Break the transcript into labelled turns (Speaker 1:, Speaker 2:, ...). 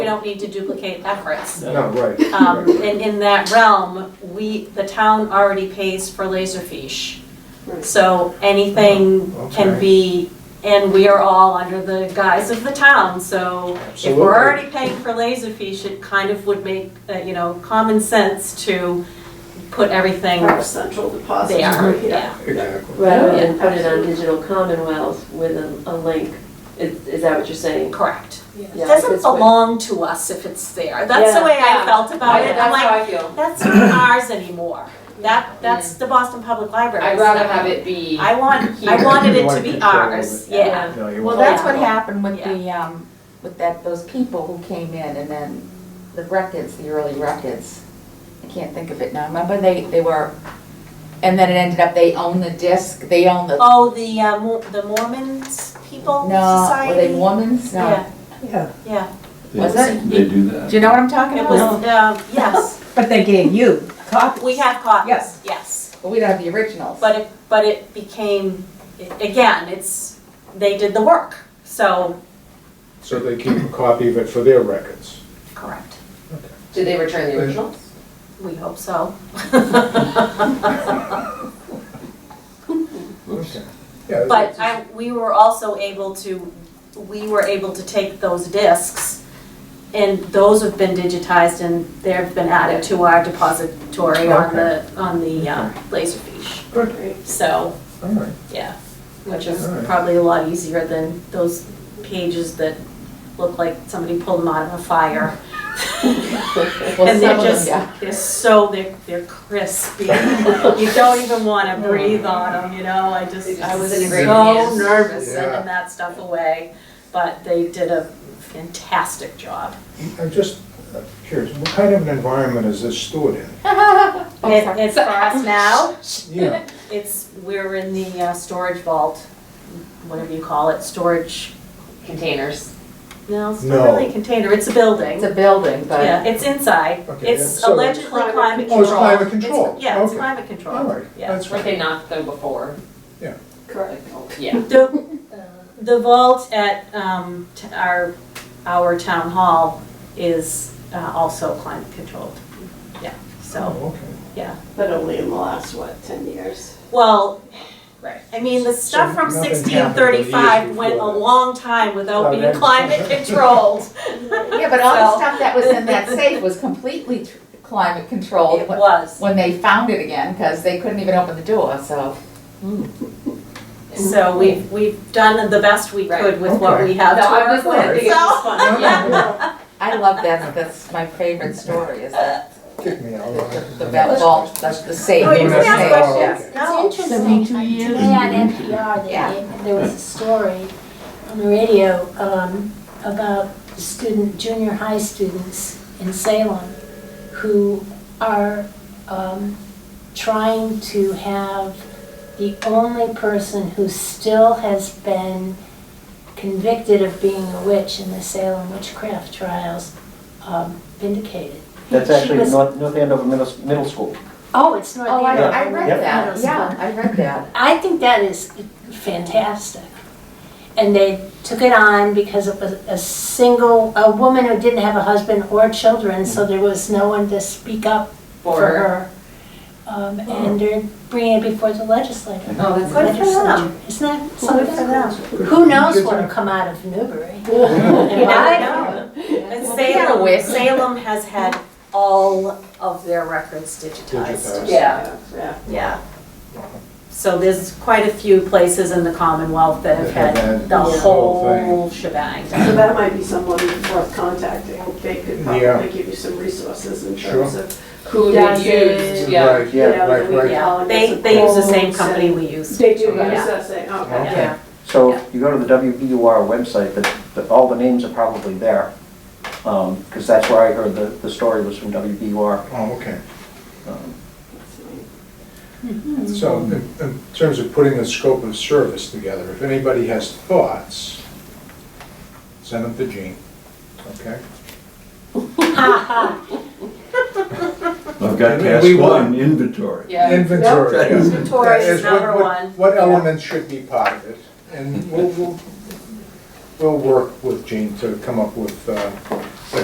Speaker 1: we don't need to duplicate efforts.
Speaker 2: No, right.
Speaker 1: Um,
Speaker 2: right, right.
Speaker 1: And in that realm, we, the town already pays for Laserfish. So anything can
Speaker 2: Oh, Okay.
Speaker 1: be, and we are all under the guise of the town, so if
Speaker 2: Absolutely.
Speaker 1: we're already paying for Laserfish, it kind of would make, uh, you know, common sense to put everything
Speaker 3: Our central depository.
Speaker 1: there, yeah.
Speaker 2: Exactly.
Speaker 4: Rather
Speaker 1: Yeah.
Speaker 4: than put it on digital commonwealth with a, a link, is, is that what you're saying?
Speaker 1: Correct. It
Speaker 4: Yeah,
Speaker 1: doesn't
Speaker 4: because we-
Speaker 1: belong to us if it's there. That's the
Speaker 4: Yeah.
Speaker 1: way I felt about it. I'm
Speaker 5: That's
Speaker 1: like,
Speaker 5: how I feel.
Speaker 1: that's not ours anymore. That, that's the Boston Public Library.
Speaker 5: I'd rather have it be.
Speaker 1: I want, I wanted it to be ours, yeah.
Speaker 2: No, you
Speaker 6: Well,
Speaker 2: won't.
Speaker 6: that's what
Speaker 1: Yeah.
Speaker 6: happened with the, um, with that, those people who came in and then the records, the early records. I can't think of it now. Remember they, they were, and then it ended up they own the disc, they own the,
Speaker 1: Oh, the, uh, Mo- the Mormons people
Speaker 6: no, were they
Speaker 1: Oh, society?
Speaker 6: Mormons? No.
Speaker 1: Yeah,
Speaker 7: Yeah,
Speaker 1: yeah.
Speaker 6: Was
Speaker 8: They-
Speaker 6: it?
Speaker 8: They do that.
Speaker 6: Do you know what I'm talking
Speaker 1: It was,
Speaker 6: about?
Speaker 1: uh, yes,
Speaker 7: but they gave you copies.
Speaker 1: we have copies,
Speaker 7: Yes.
Speaker 1: yes.
Speaker 6: But we don't have the originals.
Speaker 1: But it, but it became, again, it's, they did the work, so.
Speaker 2: So they keep a copy of it for their records.
Speaker 1: Correct.
Speaker 5: Did they return the original?
Speaker 1: We hope so.
Speaker 2: Okay. Yeah,
Speaker 1: But I, we were also able to, we were able to take those discs, and those have been digitized and they've been added to our depository on the, on the uh, Laserfish.
Speaker 2: Good.
Speaker 1: So,
Speaker 2: All right,
Speaker 1: yeah, which is
Speaker 2: Alright.
Speaker 1: probably a lot easier than those pages that look like somebody pulled them out of a fire.
Speaker 6: Well,
Speaker 1: And
Speaker 6: some
Speaker 1: they're
Speaker 6: of them,
Speaker 1: just,
Speaker 6: yeah.
Speaker 1: they're so, they're, they're crispy. You don't even wanna breathe on them, you know, I
Speaker 5: They
Speaker 1: just,
Speaker 5: just
Speaker 1: I was so
Speaker 5: disintegrate in your hands.
Speaker 1: nervous
Speaker 2: Yeah.
Speaker 1: sending that stuff away. But they did a fantastic job.
Speaker 2: I'm just uh, curious, what kind of an environment is this stored in?
Speaker 6: Oh,
Speaker 1: It-
Speaker 6: sorry.
Speaker 1: It's for us now,
Speaker 2: Yeah,
Speaker 1: it's, we're in the uh, storage vault, whatever you call it, storage,
Speaker 5: Containers.
Speaker 1: no, it's not
Speaker 2: No.
Speaker 1: really a container, it's a building.
Speaker 6: It's a building,
Speaker 1: Yeah,
Speaker 6: but
Speaker 1: it's inside.
Speaker 2: Okay, yeah,
Speaker 1: It's
Speaker 2: so-
Speaker 1: allegedly climate control.
Speaker 2: Oh, it's climate control.
Speaker 1: It's- Yeah, it's
Speaker 2: Okay.
Speaker 1: climate control.
Speaker 2: all right,
Speaker 1: Yeah.
Speaker 2: that's
Speaker 5: Weren't
Speaker 2: fine.
Speaker 5: they knocked though before?
Speaker 3: Correct.
Speaker 5: Yeah.
Speaker 1: The, the vault at um, t- our, our town hall is uh, also climate controlled. Yeah, so,
Speaker 2: Oh, okay.
Speaker 3: But only in the last, what, 10 years?
Speaker 1: well, I mean, the stuff
Speaker 2: So
Speaker 1: from
Speaker 2: nothing happened
Speaker 1: sixteen thirty-five
Speaker 2: years
Speaker 1: went a
Speaker 2: before that.
Speaker 1: long time without
Speaker 2: Well,
Speaker 1: being
Speaker 2: that's-
Speaker 1: climate controlled.
Speaker 6: yeah, but all the
Speaker 1: So-
Speaker 6: stuff that was in that safe was completely tr- climate controlled
Speaker 1: It was,
Speaker 6: when they found it again because they couldn't even open the door. So
Speaker 1: so we've, we've done the best we
Speaker 5: Right.
Speaker 1: could with what we have to
Speaker 5: No, I'm
Speaker 1: work
Speaker 5: just laughing. It's just
Speaker 1: with,
Speaker 5: funny.
Speaker 1: so.
Speaker 5: Yeah.
Speaker 6: I love that. That's my favorite story. Is that
Speaker 2: Kick me out.
Speaker 6: the vault, that's the safe.
Speaker 1: Oh, you can
Speaker 6: the
Speaker 1: ask
Speaker 6: safe, yeah.
Speaker 1: questions, no.
Speaker 9: It's interesting, today on NPR, they
Speaker 6: Oh, Yeah.
Speaker 9: gave- there was a story on the radio um, about student, junior high students in Salem who are um, trying to have the only person who still has been convicted of being a witch in the Salem witchcraft trials um, vindicated.
Speaker 10: That's
Speaker 9: She
Speaker 10: actually
Speaker 9: was-
Speaker 10: North, North Andover Middle, Middle School.
Speaker 9: Oh, it's not
Speaker 6: Oh, I,
Speaker 9: there.
Speaker 6: I read
Speaker 10: Yep.
Speaker 6: that. Yeah, I read that.
Speaker 9: I think that is fantastic. And they took it on because it was a single, a woman who didn't have a husband or children, so there was no one to speak up for
Speaker 5: For her.
Speaker 9: her. Um, and they're bringing it before the legislature.
Speaker 5: Oh, that's
Speaker 1: Good for them.
Speaker 9: Legislature. Isn't that
Speaker 1: Good for
Speaker 9: something?
Speaker 1: them.
Speaker 9: Who knows what'll come out of Newbury?
Speaker 1: You never know. And
Speaker 6: Well, we got a
Speaker 1: Salem,
Speaker 6: wish.
Speaker 1: Salem has had all of their records digitized.
Speaker 2: Digitized.
Speaker 5: Yeah.
Speaker 3: Yeah.
Speaker 1: Yeah. So there's quite a few places in the Commonwealth that have
Speaker 2: That have
Speaker 1: had
Speaker 2: had
Speaker 1: the
Speaker 2: this whole thing.
Speaker 1: whole shebang.
Speaker 3: So that might be someone worth contacting. They could
Speaker 2: Yeah.
Speaker 3: probably give you some resources in
Speaker 2: Sure.
Speaker 3: terms of,
Speaker 5: Who
Speaker 3: Yeah,
Speaker 5: they used, yeah.
Speaker 2: Right, yeah,
Speaker 3: you know,
Speaker 2: right,
Speaker 3: the
Speaker 2: right.
Speaker 3: methodologies
Speaker 1: They,
Speaker 3: and
Speaker 1: they use the same
Speaker 3: codes
Speaker 1: company
Speaker 3: and-
Speaker 1: we use.
Speaker 3: They do,
Speaker 2: Yeah.
Speaker 3: use that same, okay.
Speaker 2: Okay.
Speaker 1: Yeah.
Speaker 10: So if you go to the WBUR website, the, the, all the names are probably there. Um, cause that's where I heard the, the story was from WBUR.
Speaker 2: Oh, okay.
Speaker 10: Um,
Speaker 2: So in, in terms of putting the scope of service together, if anybody has thoughts, send them to Gene, okay?
Speaker 8: I've got
Speaker 2: And
Speaker 8: task
Speaker 2: we
Speaker 8: one,
Speaker 2: want-
Speaker 8: inventory.
Speaker 5: Yeah.
Speaker 2: Inventory.
Speaker 8: Yep.
Speaker 2: yeah.
Speaker 1: Inventory
Speaker 2: That
Speaker 1: is
Speaker 2: what-
Speaker 1: number
Speaker 2: what-
Speaker 1: one.
Speaker 2: What elements should be part of it, and we'll, we'll, we'll work with Gene to come up with uh,